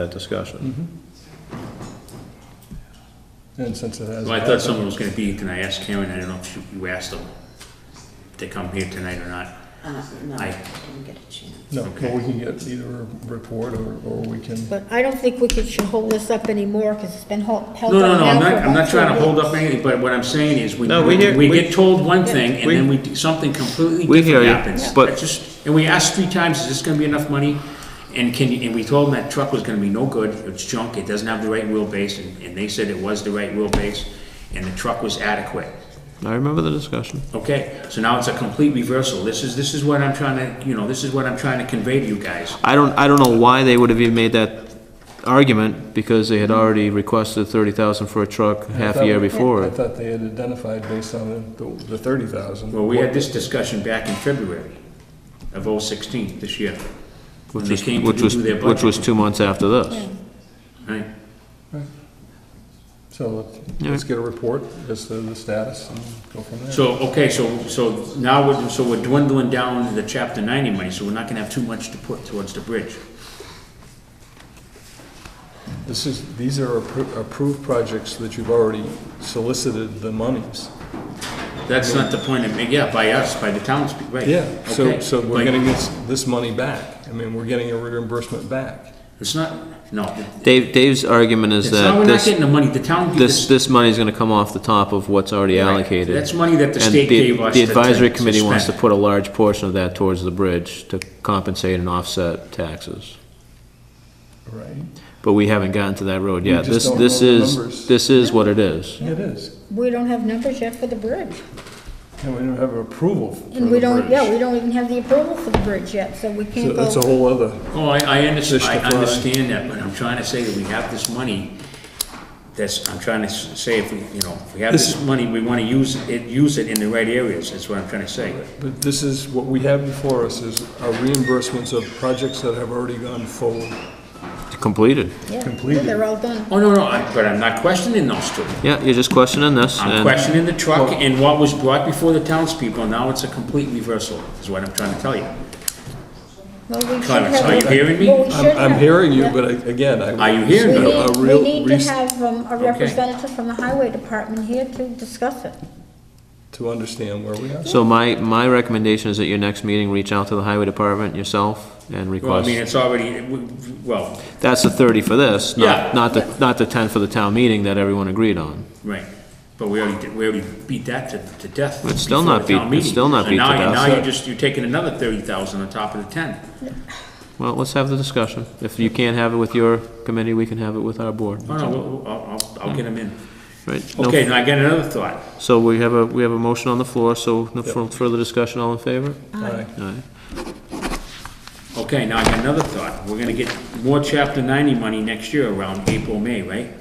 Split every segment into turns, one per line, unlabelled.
that discussion.
And since it has.
Well, I thought someone was gonna be here tonight, I asked Karen, I don't know if you- you asked them if they come here tonight or not.
Uh, no, I
Aye.
didn't get a chance.
No, well, we can get either a report or, or we can,
But I don't think we could, should hold this up anymore, because it's been held, held
No, no,
up
no, I'm
now for
not, I'm
about
not
two
trying to hold up
weeks.
anything, but what I'm saying is, we,
No, we hear-
we
we-
get told one thing, and
we-
then we, do something completely
We hear
different
you,
happens.
but-
That's just- And we asked three times, is this gonna be enough money? And can, you- and we told them that truck was gonna be no good, it's junk, it doesn't have the right wheelbase, and, and they said it was the right wheelbase, and the truck was adequate.
I remember the discussion.
Okay, so now it's a complete reversal, this is, this is what I'm trying to, you know, this is what I'm trying to convey to you guys.
I don't, I don't know why they would have even made that argument, because they
Mm-hmm.
had already requested thirty thousand for a truck half a year before.
I thought they had identified based on the, the thirty thousand.
Well, we had this discussion back in February of 016 this year. when
Which
they
was,
came to
which was,
do their
which was
budget.
two months after this.
Right,
So let's- let's get a report as to the status and go from there.
so, okay, so, so now we're, so we're dwindling down to the chapter ninety money, so we're not gonna have too much to put towards the bridge.
This is, these are appro- approved projects that you've already solicited the monies.
That's not the point of, yeah, by us, by the townspeople, right?
Yeah, so,
okay,
so we're
but
getting this, this money back. I mean, we're getting a reimbursement back.
It's not, no,
Dave, Dave's argument is
it's not,
that
we're not
this,
getting the money, the town.
this, this money's gonna come off the top of what's already
Right.
allocated.
That's money that the
And
state gave us
The
to-
advisory
to- to
committee wants to
spend.
put a large portion of that towards the bridge to compensate and offset taxes.
Right.
But we haven't gotten to that road yet.
just
This,
don't
this
know the
is,
numbers.
this is what it is.
It is.
We don't have numbers yet for the bridge,
And we don't have approval for
and we
the
don't,
bridge.
yeah, we don't even have the approval for the bridge yet, so we
So
can't
that's a
go.
whole other,
Oh, I, I understand,
Fish
I
to fry.
understand that, but I'm trying to say that we have this money, that's, I'm trying to s- say if we, you know, if we have this money, we wanna use it, use it in the right areas, is what I'm trying to say.
but this is, what we have before us is our reimbursements of projects that have already gone forward.
Completed.
Yeah,
completed.
They're all done.
Oh, no, no, I- but I'm not questioning those two.
Yeah, you're just questioning this
I'm
and-
questioning the truck and what was brought before the townspeople, now it's a complete reversal, is what I'm trying to tell you.
Well, we should
Clarence,
have
are
a-
you hearing me?
well, we should
I'm, I'm
have-
hearing you,
yeah.
but I- again, I.
Are you hearing
We
me?
a- a
need,
real
we need to
rec-
have um, a representative from the highway department here to discuss it.
To understand where we are.
So my, my recommendation is at your next meeting, reach out to the highway department yourself and
Well, I mean,
request.
it's already, we- well,
That's the thirty for this,
Yeah.
not, not the, not the ten for the town meeting that everyone agreed on.
right, but we already, did- we already beat that to, to death.
It's still
before
not
the town
beat- it's
meeting.
still not
And
beat to
now-
death.
And now you're just, you're taking another thirty thousand on top of the ten.
Well, let's have the discussion. If you can't have it with your committee, we can have it with our board,
Oh, no, we'll- I'll, I'll, I'll get them in.
right? No-
Okay, now I got another thought.
So we have a, we have a motion on the floor, so no fur- further discussion, all in favor?
Aye.
Aye.
Okay, now I got another thought. We're gonna get more chapter ninety money next year around April, May, right?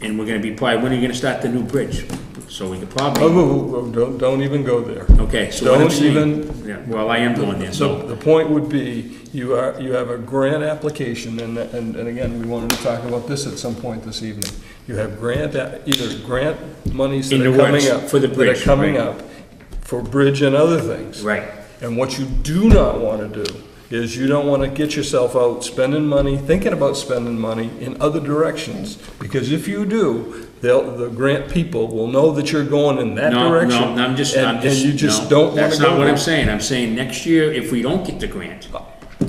And we're gonna be probably, when are you gonna start the new bridge? So we could
Oh,
probably,
whoa, whoa, whoa, don't, don't even go there.
okay, so what I'm
Don't
saying,
even-
yeah, well, I am going there,
So
so,
the point would be, you are, you have a grant application, and, and, and again, we wanted to talk about this at some point this evening. You have grant, a- either grant monies that
In
are
the
coming
works,
up.
for the
That
bridge,
are coming
right.
up for bridge and other things.
right.
And what you do not want to do is you don't want to get yourself out spending money, thinking about spending money in other directions. Because if you do, they'll, the grant people will know that you're going in that
No,
direction.
no, I'm just,
and-
I'm just,
And you just
no,
don't want to go.
That's not what
there.
I'm saying. I'm saying next year, if we don't get the grant,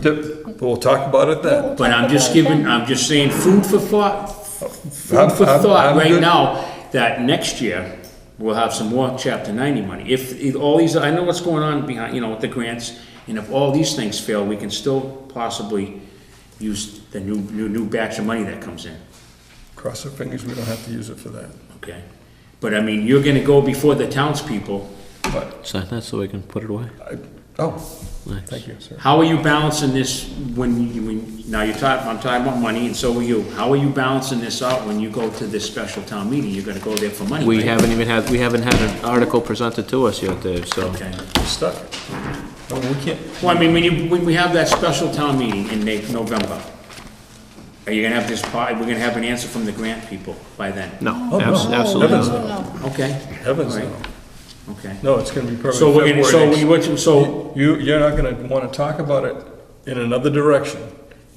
Th- We'll talk about it then.
But I'm just giving, I'm just saying food for thought, food
I'm-
for
I'm-
thought
I'm
right
good.
now, that next year, we'll have some more chapter ninety money. If, if all these, I know what's going on behind, you know, with the grants, and if all these things fail, we can still possibly use the new, new, new batch of money that comes in,
Cross our fingers, we don't have to use it for that.
okay? But I mean, you're gonna go before the townspeople.
But,
Sign that so we can put it away.
I, oh,
Nice.
thank you, sir.
How are you balancing this when, you- when, now you're talking, I'm talking about money, and so are you. How are you balancing this out when you go to this special town meeting? You're gonna go there for money,
We
right?
haven't even had, we haven't had an article presented to us yet, Dave, so.
Okay.
We're Stuck. I mean, we can't,
Well, I mean, when you, when we have that special town meeting in Na- November, are you gonna have this, po- we're gonna have an answer from the grant people by then?
No,
Oh, no.
abs-
No,
absolutely
Heavens
not.
no.
No,
Okay,
heavens
Right.
no.
okay.
No, it's gonna be probably
So we're gonna,
February
so
next
we, what you- so,
You, you're not gonna wanna talk about it in another direction.